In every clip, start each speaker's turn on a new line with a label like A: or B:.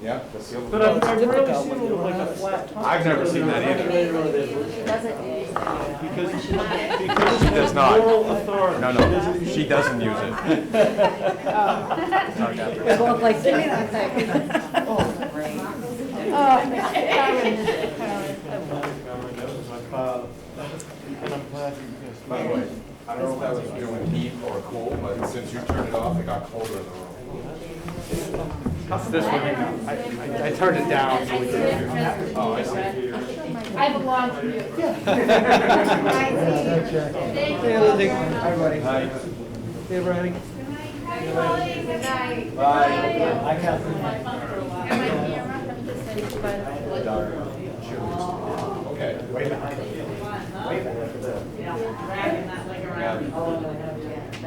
A: Yeah, that's the
B: But
A: other
B: I've,
A: one.
B: I've rarely
C: difficult
B: seen
C: when
B: it
C: you
B: with like a
C: don't have it.
B: flat top.
A: I've never seen that either.
D: Doesn't.
B: Because, because
A: She does not.
B: Moral authority.
A: No, no, she doesn't use it.
C: It looked like, give me that
D: Oh,
B: And I'm glad that you guys.
A: By the way, I don't know if that was doing heat or cool, but since you turned it off, it got colder in the room.
E: This one, I, I turned it down.
A: Oh, I see.
D: I have a long commute. Thank you. all very much.
A: Hi.
D: Good night. Good night.
C: I can't.
D: And my camera, I'm just saying, but-
A: Okay. Way back. It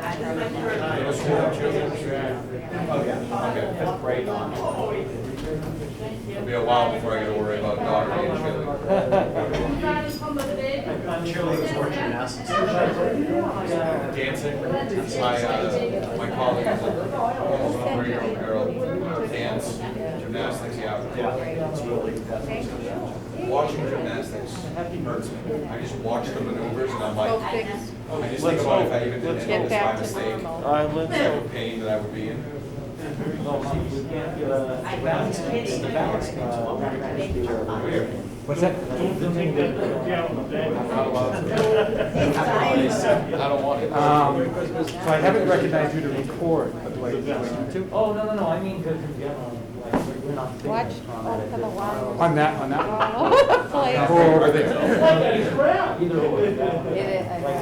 A: was cool, Oh, yeah. Okay. That's great on. It'll be a while before I get to worry about daughter and chili.
D: You got it from the bed?
A: Dancing, my, uh, my colleague, is a almost a three-year-old girl, dance, gymnastics, yeah. Watching gymnastics hurts me. I just watch the maneuvers and I'm like, I just think about if I even did any of this by mistake,
B: I live.
A: the type of pain that I would be in. Weird. I don't want it.
E: Um, so I haven't recognized you to record, but do I, do I need to?
C: Oh, no, no, no, I mean, good, yeah, like, we're not. Watch,
E: On that, on that? one?
A: Oh, over there.
C: Either way, like,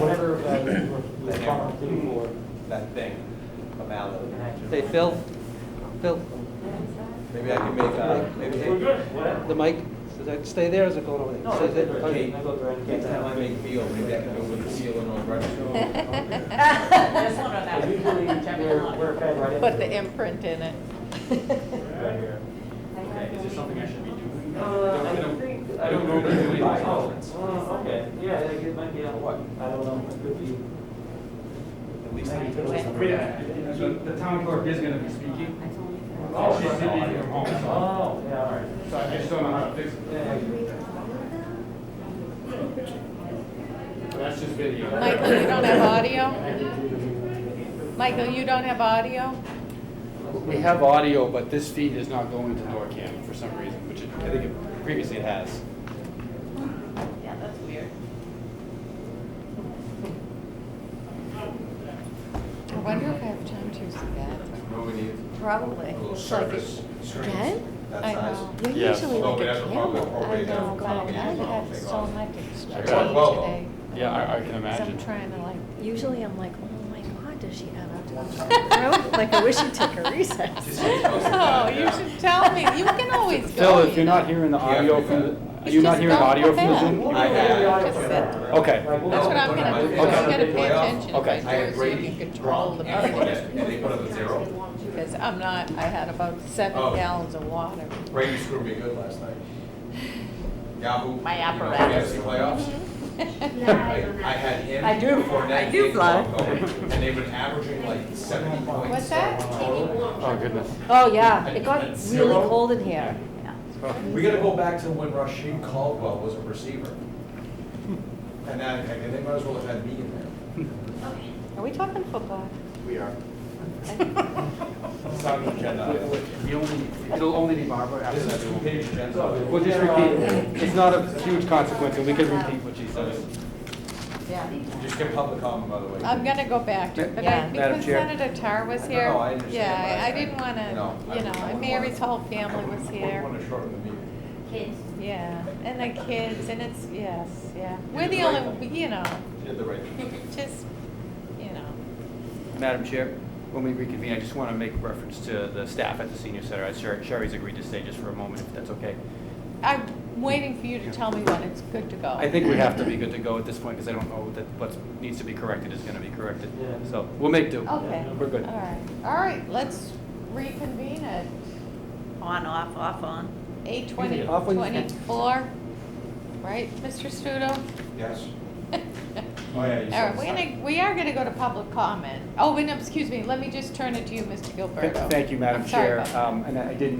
C: whatever, uh, we're- we're responsible for.
A: That thing, a mallet.
F: Hey, Phil, Phil,
A: Maybe I can make, uh, maybe,
F: the mic, does that stay there or is it going over there?
C: No,
F: Stays
C: it's-
F: there?
C: okay, I go there and get
A: next time I
C: that.
A: make meal, maybe I can do it with the seal and all right.
C: But Usually, we're, we're fed right in.
G: Put the imprint in it.
C: Uh, I don't think. I don't know if it's by conference. Oh, okay, yeah, like, it might be on what, I don't know, it could be. At least.
H: So the town clerk is gonna be speaking. She should be here home, so
C: Oh, yeah, all right.
H: so I just don't know how to fix it.
C: Yeah, yeah.
H: But That's just video.
G: Michael, you don't have audio? Michael, you don't have audio?
H: We have audio, but this feed is not going to NORCAM for some reason, which it- I think it- previously it has.
D: Yeah, that's weird.
G: I wonder if I have time to see that.
A: What we need,
G: Probably.
A: a
D: Oh,
A: little
G: It's like
A: service,
G: Again?
A: screens, that
G: I
A: size.
G: know. You
B: Yes.
G: usually
A: Well,
G: look
A: we
G: at
A: have to probably
G: camera. I
A: appropriate that
G: know,
A: for
G: but I
A: copying and
G: had
A: take
G: so
A: off.
G: much
A: I
G: extra
A: got it well, though.
G: today.
H: Yeah, I, I can
G: Because I'm
H: imagine.
G: trying to like, usually I'm like, oh my God, does she have a? Like, I wish she'd take a recess.
A: Just use most of
G: Oh,
A: that,
G: you
A: yeah.
G: should tell me. You can always go.
H: Phil, if
G: you
H: you're
G: know.
H: not hearing the
A: Yeah,
H: audio
A: we
H: from,
A: got it.
H: the- you're not hearing
G: Just
H: audio
G: don't
H: from the
G: come
H: Zoom?
G: in.
A: I had.
G: Just sit.
H: Okay,
G: That's what I'm gonna do. You
A: Okay.
G: gotta pay attention if
H: Okay.
G: I do, so you can control the
A: And they put
G: meeting.
A: it- and they put it at zero.
G: Because I'm not, I had about
A: Oh.
G: seven gallons of water.
A: Brady screwed me good last night. Yahoo.
G: My
A: you know,
G: apparatus.
A: Fantasy playoffs. I I had him.
G: I do-
A: Fournette,
G: I do
A: and
G: fly.
A: Flacco, And they've been averaging like seventy points.
G: What's that?
H: oh goodness.
G: Oh, yeah,
A: It got At zero? really cold
G: in here.
A: We gotta go back to when Rashid Caldwell was a receiver. And that, and they might as well have had me in there.
G: Are we talking football?
A: We are. It's not an agenda.
H: You only, it'll only be Barbara after
A: This
H: that.
A: is a two-page agenda.
H: We'll just repeat, it's not a huge consequence, and we can repeat what she says.
G: Yeah.
A: Just get public comment, by the way.
G: I'm gonna go back to it, but
F: Yeah.
G: I,
F: Madam
G: because
F: Chair.
G: Senator Tar was
A: No,
G: here.
A: no, I understand,
G: Yeah,
A: but
G: I-
A: I-
G: I didn't
A: No,
G: wanna,
A: I
G: you know,
A: wouldn't
G: and
A: want-
G: Mary's whole
A: I
G: family
A: wouldn't-
G: was
A: I
G: here.
A: wouldn't wanna shorten the meeting.
D: Kids.
G: Yeah, and the kids, and it's, yes, yeah. We're
A: did
G: the
A: the right
G: only,
A: thing.
G: you know,
A: You Did the right thing.
G: just, you know.
E: Madam Chair, when we reconvene, I just want to make reference to the staff at the senior center. Uh, Sher- Sherry's agreed to stay just for a moment, if that's okay.
G: I'm waiting for you to tell me when it's good to go.
E: I think we have to be good to go at this point, because I don't know that what needs to be corrected is going to be corrected.
C: Yeah.
E: So we'll make do.
G: Okay.
E: We're good.
G: All right, all right, let's reconvene at
D: On, off, off, on.
G: eight twenty,
F: off when you can.
G: twenty-four, right, Mr. Studo?
A: Yes. Oh, yeah. you
G: All right,
A: said
G: we're
A: that.
G: gonna, we are gonna go to public comment. Oh, wait, no, excuse me, let me just turn it to you, Mr.
E: Th-
G: Gilberto.
E: Thank you, Madam
G: I'm sorry
E: Chair.
G: about that.
E: Um, And I I didn't